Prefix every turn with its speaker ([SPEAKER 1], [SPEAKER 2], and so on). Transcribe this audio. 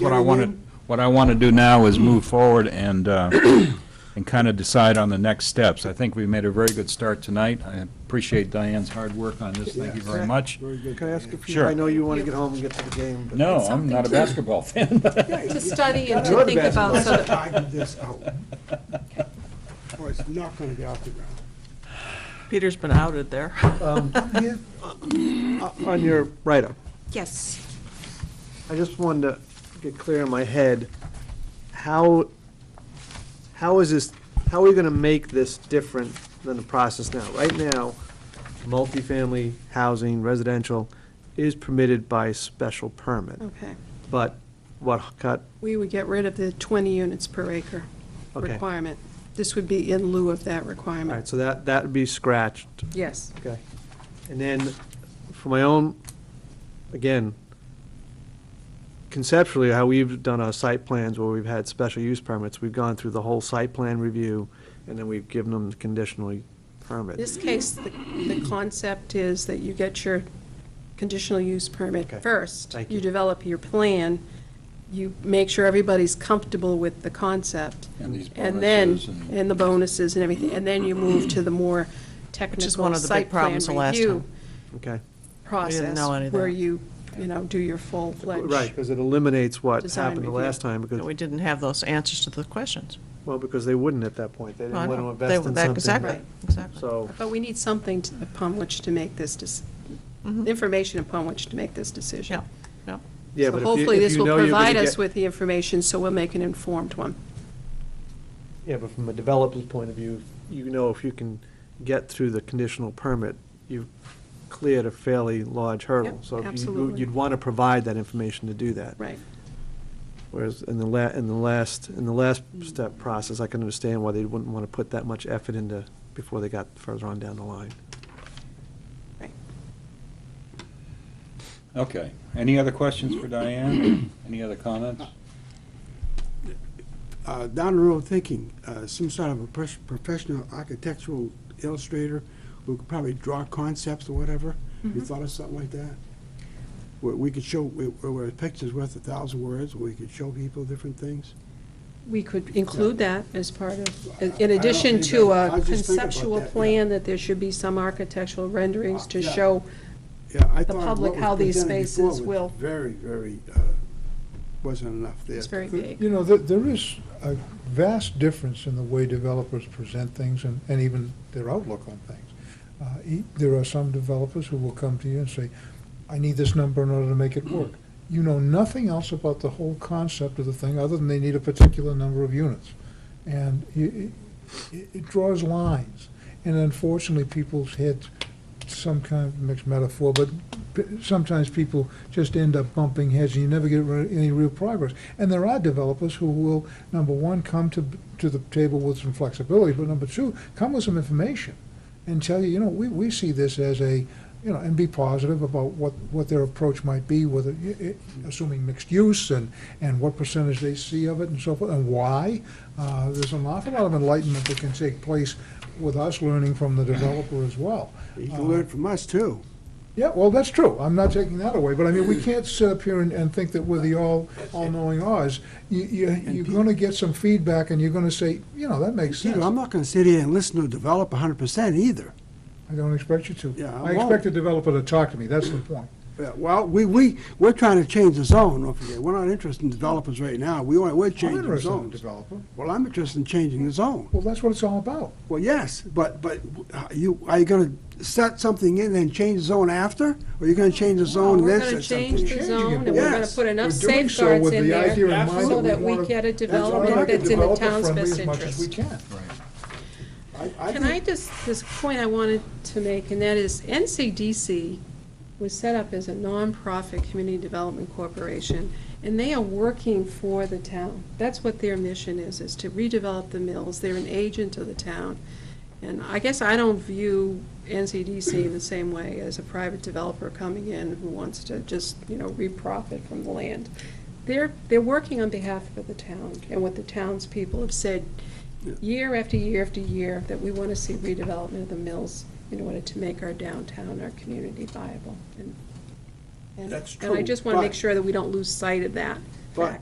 [SPEAKER 1] What I want to, what I want to do now is move forward and, uh, and kind of decide on the next steps. I think we made a very good start tonight. I appreciate Diane's hard work on this. Thank you very much.
[SPEAKER 2] Can I ask if you,
[SPEAKER 1] Sure.
[SPEAKER 2] I know you want to get home and get to the game. but-
[SPEAKER 1] No, I'm not a basketball fan.
[SPEAKER 3] To study and
[SPEAKER 2] You're
[SPEAKER 3] to
[SPEAKER 2] the
[SPEAKER 3] think
[SPEAKER 2] best.
[SPEAKER 3] about, so
[SPEAKER 4] Let's
[SPEAKER 3] that,
[SPEAKER 4] tighten this out. Or it's not gonna get off the ground.
[SPEAKER 5] Peter's been outed there.
[SPEAKER 2] On your write-up,
[SPEAKER 3] yes.
[SPEAKER 2] I just wanted to get clear in my head, how, how is this, how are we gonna make this different than the process now? Right now, multifamily housing, residential is permitted by special permit,
[SPEAKER 6] Okay.
[SPEAKER 2] but what got,
[SPEAKER 6] We would get rid of the 20 units per acre
[SPEAKER 2] Okay.
[SPEAKER 6] requirement. This would be in lieu of that
[SPEAKER 2] all right,
[SPEAKER 6] requirement.
[SPEAKER 2] so that, that would be scratched.
[SPEAKER 6] Yes.
[SPEAKER 2] Okay. And then, for my own, again, conceptually, how we've done our site plans where we've had special use permits, we've gone through the whole site plan review, and then we've given them the conditional
[SPEAKER 6] In
[SPEAKER 2] permit.
[SPEAKER 6] this case, the, the concept is that you get your conditional use permit
[SPEAKER 2] Okay.
[SPEAKER 6] first.
[SPEAKER 2] Thank you.
[SPEAKER 6] You develop your plan, you make sure everybody's comfortable with the concept.
[SPEAKER 1] And these
[SPEAKER 6] And then,
[SPEAKER 1] bonuses and-
[SPEAKER 6] and the bonuses and everything, and then you move to the more
[SPEAKER 5] one
[SPEAKER 6] technical
[SPEAKER 5] of the big
[SPEAKER 6] site plan
[SPEAKER 5] problems the last
[SPEAKER 6] review
[SPEAKER 5] time.
[SPEAKER 2] Okay?
[SPEAKER 6] process.
[SPEAKER 5] know any of
[SPEAKER 6] Where
[SPEAKER 5] that.
[SPEAKER 6] you, you know, do your full-fledged.
[SPEAKER 2] Right, because it eliminates what
[SPEAKER 6] Design
[SPEAKER 2] happened the
[SPEAKER 6] review.
[SPEAKER 2] last time, because,
[SPEAKER 5] We didn't have those answers to the questions.
[SPEAKER 2] well, because they wouldn't at that point. They
[SPEAKER 5] No, I
[SPEAKER 2] didn't want to
[SPEAKER 5] know.
[SPEAKER 2] invest in
[SPEAKER 5] They-
[SPEAKER 2] something.
[SPEAKER 5] that- Exactly,
[SPEAKER 6] Right.
[SPEAKER 5] exactly.
[SPEAKER 2] So,
[SPEAKER 6] But we need something to- upon which to make this, dec- information upon which to make this decision.
[SPEAKER 5] Yeah, yeah.
[SPEAKER 2] yeah,
[SPEAKER 6] So
[SPEAKER 2] but if you-
[SPEAKER 6] Hopefully,
[SPEAKER 2] if
[SPEAKER 6] this
[SPEAKER 2] you
[SPEAKER 6] will
[SPEAKER 2] know you're gonna
[SPEAKER 6] provide us
[SPEAKER 2] get-
[SPEAKER 6] with the information, so we'll make an informed one.
[SPEAKER 2] Yeah, but from a developer's point of view, you know if you can get through the conditional permit, you've cleared a fairly large hurdle.
[SPEAKER 6] Yep,
[SPEAKER 2] So you-
[SPEAKER 6] absolutely.
[SPEAKER 2] You'd want to provide that information to do that.
[SPEAKER 6] Right.
[SPEAKER 2] Whereas in the la, in the last, in the last step process, I can understand why they wouldn't want to put that much effort into, before they got further on down the line.
[SPEAKER 1] Okay. Any other questions for Diane? Any other comments?
[SPEAKER 4] Uh, down the road thinking, uh, some sort of a pres- professional architectural illustrator who could probably draw concepts or whatever.
[SPEAKER 6] Mm-hmm.
[SPEAKER 4] You thought of something like that? Where we could show, where, where a picture's worth a thousand words, where we could show people different things?
[SPEAKER 6] We could include that as part
[SPEAKER 4] I- I
[SPEAKER 6] of,
[SPEAKER 4] don't
[SPEAKER 6] in addition to
[SPEAKER 4] either. I
[SPEAKER 6] a
[SPEAKER 4] was just thinking about
[SPEAKER 6] conceptual
[SPEAKER 4] that, yeah.
[SPEAKER 6] plan, that there should be some architectural renderings to
[SPEAKER 4] Yeah.
[SPEAKER 6] show
[SPEAKER 4] Yeah, I
[SPEAKER 6] The
[SPEAKER 4] thought
[SPEAKER 6] public,
[SPEAKER 4] what was
[SPEAKER 6] how these
[SPEAKER 4] presented before
[SPEAKER 6] spaces
[SPEAKER 4] was
[SPEAKER 6] will-
[SPEAKER 4] Very, very, uh, wasn't enough there.
[SPEAKER 6] it's very vague.
[SPEAKER 7] You know, there, there is a vast difference in the way developers present things and, and even their outlook on things. Uh, e- There are some developers who will come to you and say, I need this number in order to make it work. You know nothing else about the whole concept of the thing, other than they need a particular number of units. And it, it, it draws lines. And unfortunately, people's heads, some kind of mixed metaphor, but p- sometimes people just end up bumping heads and you never get re- any real progress. And there are developers who will, number one, come to, to the table with some flexibility, but number two, come with some information and tell you, you know, we, we see this as a, you know, and be positive about what, what their approach might be, whether, i- i- assuming mixed use and, and what percentage they see of it and so forth, and why. Uh, There's an awful lot of enlightenment that can take place with us learning from the developer as well.
[SPEAKER 4] You can learn from us, too.
[SPEAKER 7] Yeah, well, that's true. I'm not taking that away, but I mean, we can't sit up here and, and think that we're the all, all-knowing Oz. You, you, you're gonna get some feedback and you're gonna say, you know, that makes sense.
[SPEAKER 4] Peter, I'm not gonna sit here and listen to a developer hundred percent either.
[SPEAKER 7] I don't expect you to.
[SPEAKER 4] Yeah, I
[SPEAKER 7] I expect
[SPEAKER 4] won't.
[SPEAKER 7] the developer to talk to me, that's the point.
[SPEAKER 4] Yeah, Well, we, we, we're trying to change the zone, don't forget. We're not interested in developers right now. We, want- we're
[SPEAKER 7] I'm
[SPEAKER 4] changing the
[SPEAKER 7] interested in the
[SPEAKER 4] zones.
[SPEAKER 7] developer.
[SPEAKER 4] Well, I'm interested in changing the zone.
[SPEAKER 7] Well, that's what it's all about.
[SPEAKER 4] Well, yes, but, but uh, you, are you gonna set something in and change the zone after? Or are you gonna change the zone and
[SPEAKER 6] We're
[SPEAKER 4] then
[SPEAKER 6] going to
[SPEAKER 4] set
[SPEAKER 6] change
[SPEAKER 4] something?
[SPEAKER 6] the
[SPEAKER 7] Changing
[SPEAKER 6] zone,
[SPEAKER 7] it,
[SPEAKER 6] and
[SPEAKER 7] but
[SPEAKER 6] we're going to
[SPEAKER 4] yes,
[SPEAKER 6] put enough
[SPEAKER 7] We're doing so
[SPEAKER 6] safeguards
[SPEAKER 7] with
[SPEAKER 6] in
[SPEAKER 7] the
[SPEAKER 6] there
[SPEAKER 7] idea in mind
[SPEAKER 6] so
[SPEAKER 7] we
[SPEAKER 6] that we
[SPEAKER 7] wanna-
[SPEAKER 6] get a
[SPEAKER 7] That's why we
[SPEAKER 6] development
[SPEAKER 7] make it
[SPEAKER 6] that's in the town's
[SPEAKER 7] developer-friendly
[SPEAKER 6] best
[SPEAKER 7] as much as we
[SPEAKER 6] interest.
[SPEAKER 7] can.
[SPEAKER 4] I- I
[SPEAKER 6] Can
[SPEAKER 4] think-
[SPEAKER 6] I just, this point I wanted to make, and that is NCDC was set up as a nonprofit community development corporation, and they are working for the town. That's what their mission is, is to redevelop the mills. They're an agent of the town. And I guess I don't view NCDC in the same way as a private developer coming in who wants to just, you know, reprofit from the land. They're, they're working on behalf of the town and what the townspeople have said year after year after year that we want to see redevelopment of the mills in order to make our downtown, our community viable. And- and-
[SPEAKER 4] That's
[SPEAKER 6] And I
[SPEAKER 4] true,
[SPEAKER 6] just want to make
[SPEAKER 4] but-
[SPEAKER 6] sure that we don't lose sight of that
[SPEAKER 4] But
[SPEAKER 6] fact.